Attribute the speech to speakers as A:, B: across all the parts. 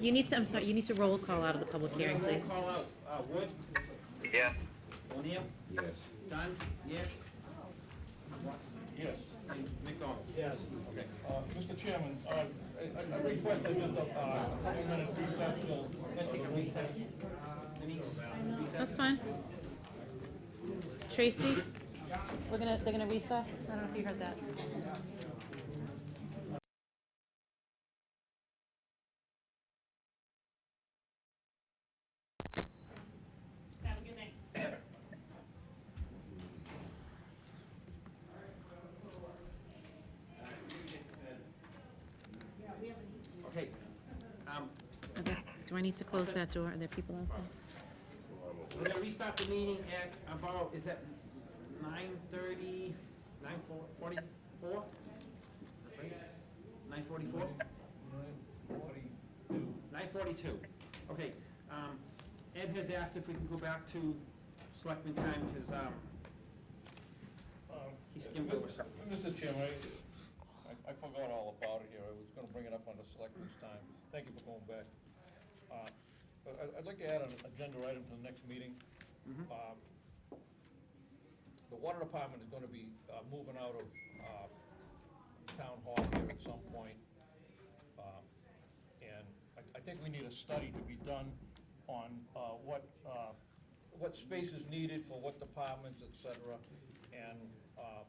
A: You need to, I'm sorry, you need to roll call out of the public hearing,
B: Roll
A: please.
B: Call out, uh, Wood,
C: Yes.
B: O'Neill,
D: Yes.
B: Dunn, yes?
E: Yes.
B: And McDonald?
E: Yes. Uh, Mr. Chairman, uh, I- I I request that just a, uh, a minute recess till,
B: Can I take a recess? Denise? Recess?
A: That's fine. Tracy, we're gonna, they're gonna recess. I don't know if you heard that.
B: Okay. Um,
A: Okay. Do I need to close that door? Are there people out there?
B: we're gonna restart the meeting at about, is that nine thirty, nine forty-four? Nine forty-four? Nine forty-two. Okay, um, Ed has asked if we can go back to selectman time, because, um,
E: um,
B: he skimmed over something.
E: Mr. Chairman, I- I, I forgot all about it here, I was gonna bring it up on the selectmen's time, thank you for going back. Uh, but I, I'd like to add an agenda item to the next meeting.
B: Mm-hmm.
E: Um, The water department is gonna be, uh, moving out of, uh, town hall here at some point. Um, And I, I think we need a study to be done on, uh, what, uh, what space is needed for what departments, et cetera. And, uh,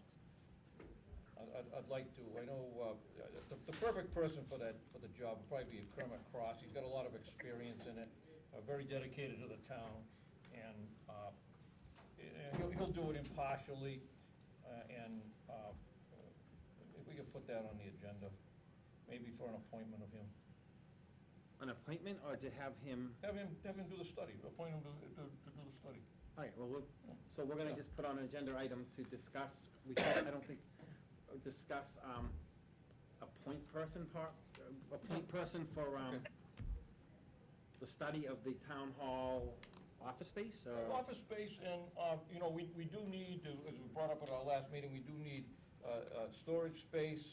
E: I'd- I'd, I'd like to, I know, uh, the, the perfect person for that, for the job would probably be Kermit Cross. He's got a lot of experience in it, uh, very dedicated to the town, and, uh, and he'll, he'll do it impartially, uh, and, uh, if we could put that on the agenda, maybe for an appointment of him.
B: An appointment, or to have him?
E: Have him, have him do the study, appoint him to, to, to do the study.
B: All right, well, we'll- so we're gonna just put on an agenda item to discuss, we can't, I don't think, uh, discuss, um, appoint person part, appoint person for, um, the study of the town hall office space, or?
E: Office space and, uh, you know, we, we do need, to- as we brought up at our last meeting, we do need uh, uh, storage space.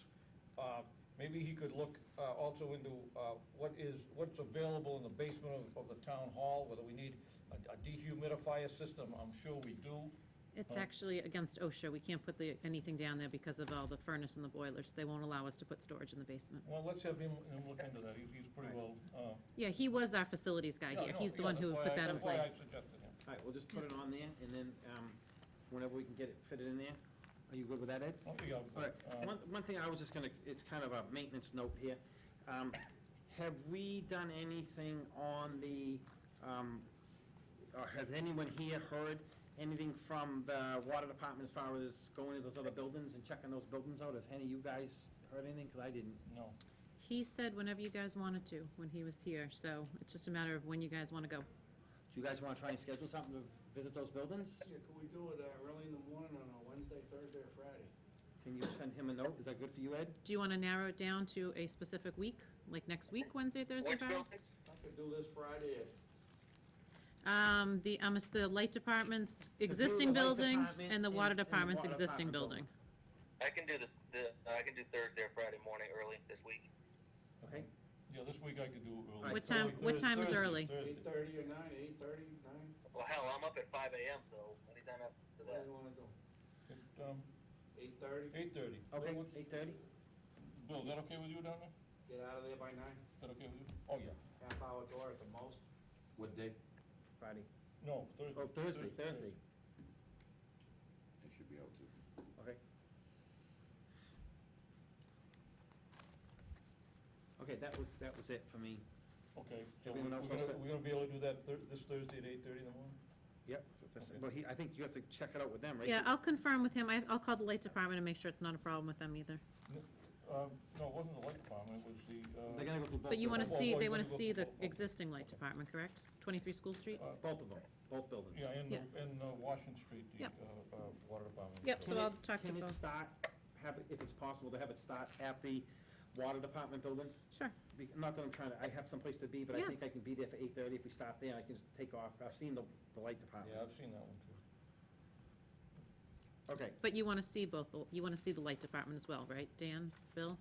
E: Uh, Maybe he could look uh, also into uh, what is, what's available in the basement of, of the town hall, whether we need a a dehumidifier system, I'm sure we do.
A: It's actually against OSHA. We can't put the, anything down there because of all the furnace and the boilers. They won't allow us to put storage in the basement.
E: Well, let's have him, him look into that, he's, he's pretty well. uh,
A: Yeah, he was our facilities guy
E: no,
A: here.
E: no,
A: He's the
E: yeah,
A: one who
E: that's why
A: put
E: I-
A: that in
E: that's why I
A: place.
E: suggested him.
B: All right, we'll just put it on there, and then, um, whenever we can get it fitted in there, are you good with that, Ed?
E: Oh, yeah,
B: All right,
E: uh,
B: one, one thing I was just gonna, it's kind of a maintenance note here. Um, Have we done anything on the, um, or has anyone here heard anything from the water department as far as going to those other buildings and checking those buildings out? Has any of you guys heard anything? Because I didn't.
E: No,
A: He said whenever you guys wanted to, when he was here, so it's just a matter of when you guys want to go.
B: Do you guys want to try and schedule something to visit those buildings?
F: Yeah, could we do it uh, early in the morning on a Wednesday, Thursday, or Friday?
B: Can you send him a note? Is that good for you, Ed?
A: Do you want to narrow it down to a specific week, like next week, Wednesday, Thursday,
C: Which
A: Friday?
C: buildings?
F: I could do this Friday at
A: Um, the, um, it's the light department's
B: do the
A: existing
B: light
A: building
B: department
A: and the
B: and-
A: water
B: and the
A: department's
B: water
A: existing
B: department
A: building.
C: I can do this, the, uh, I can do Thursday or Friday morning early this week.
B: Okay,
E: yeah, this week I could do it early.
B: What
E: It's
A: time-
E: early
A: what
E: Thurs-
A: time is
E: Thursday,
A: early?
E: Thursday.
F: eight thirty or nine, eight thirty, nine,
C: Well, hell, I'm up at five AM, so anytime after
F: what
C: that.
F: do you wanna do?
E: It, um,
F: Eight thirty,
E: Eight thirty.
B: okay, eight thirty?
E: Bill, is that okay with you down there?
F: get out of there by nine,
E: Is that okay with you? Oh, yeah.
F: half hour door at the most.
D: What day?
B: Friday.
E: No, Thursday.
B: Oh, Thursday, Thursday.
D: I should be able to.
B: Okay. Okay, that was, that was it for me.
E: Okay, so we're
B: Everyone
E: gonna,
B: else all set?
E: we're gonna be able to do that Thur- this Thursday at eight thirty in the morning?
B: Yep,
E: Okay.
B: but he, I think you have to check it out with them, right?
A: Yeah, I'll confirm with him. I, I'll call the light department and make sure it's not a problem with them either.
E: Um, no, it wasn't the light department, it was the, uh.
B: They're gonna go through both.
A: But you
B: of
A: want to
B: them.
E: Well,
A: see,
E: well,
A: they
E: you
A: want to
E: gotta go
A: see the
E: for both.
A: existing light department, correct? 23 School Street?
E: Uh,
B: Both of them, both buildings.
E: Yeah, and,
A: Yeah.
E: the- and uh, Washington Street, the, uh,
A: Yep.
E: uh, water department.
A: Yep,
B: Can
A: so
B: it-
A: I'll talk to
B: Can it
A: both.
B: start, have, it- if it's possible to have it start at the water department building?
A: Sure.
B: Be- Not that I'm trying to, I have someplace to be, but I
A: Yeah.
B: think I can be there for eight thirty if we start there, and I can just take off. I've seen the, the light
E: Yeah,
B: department.
E: I've seen that one too.
B: Okay,
A: But you want to see both, the- you want to see the light department as well, right? Dan, Bill?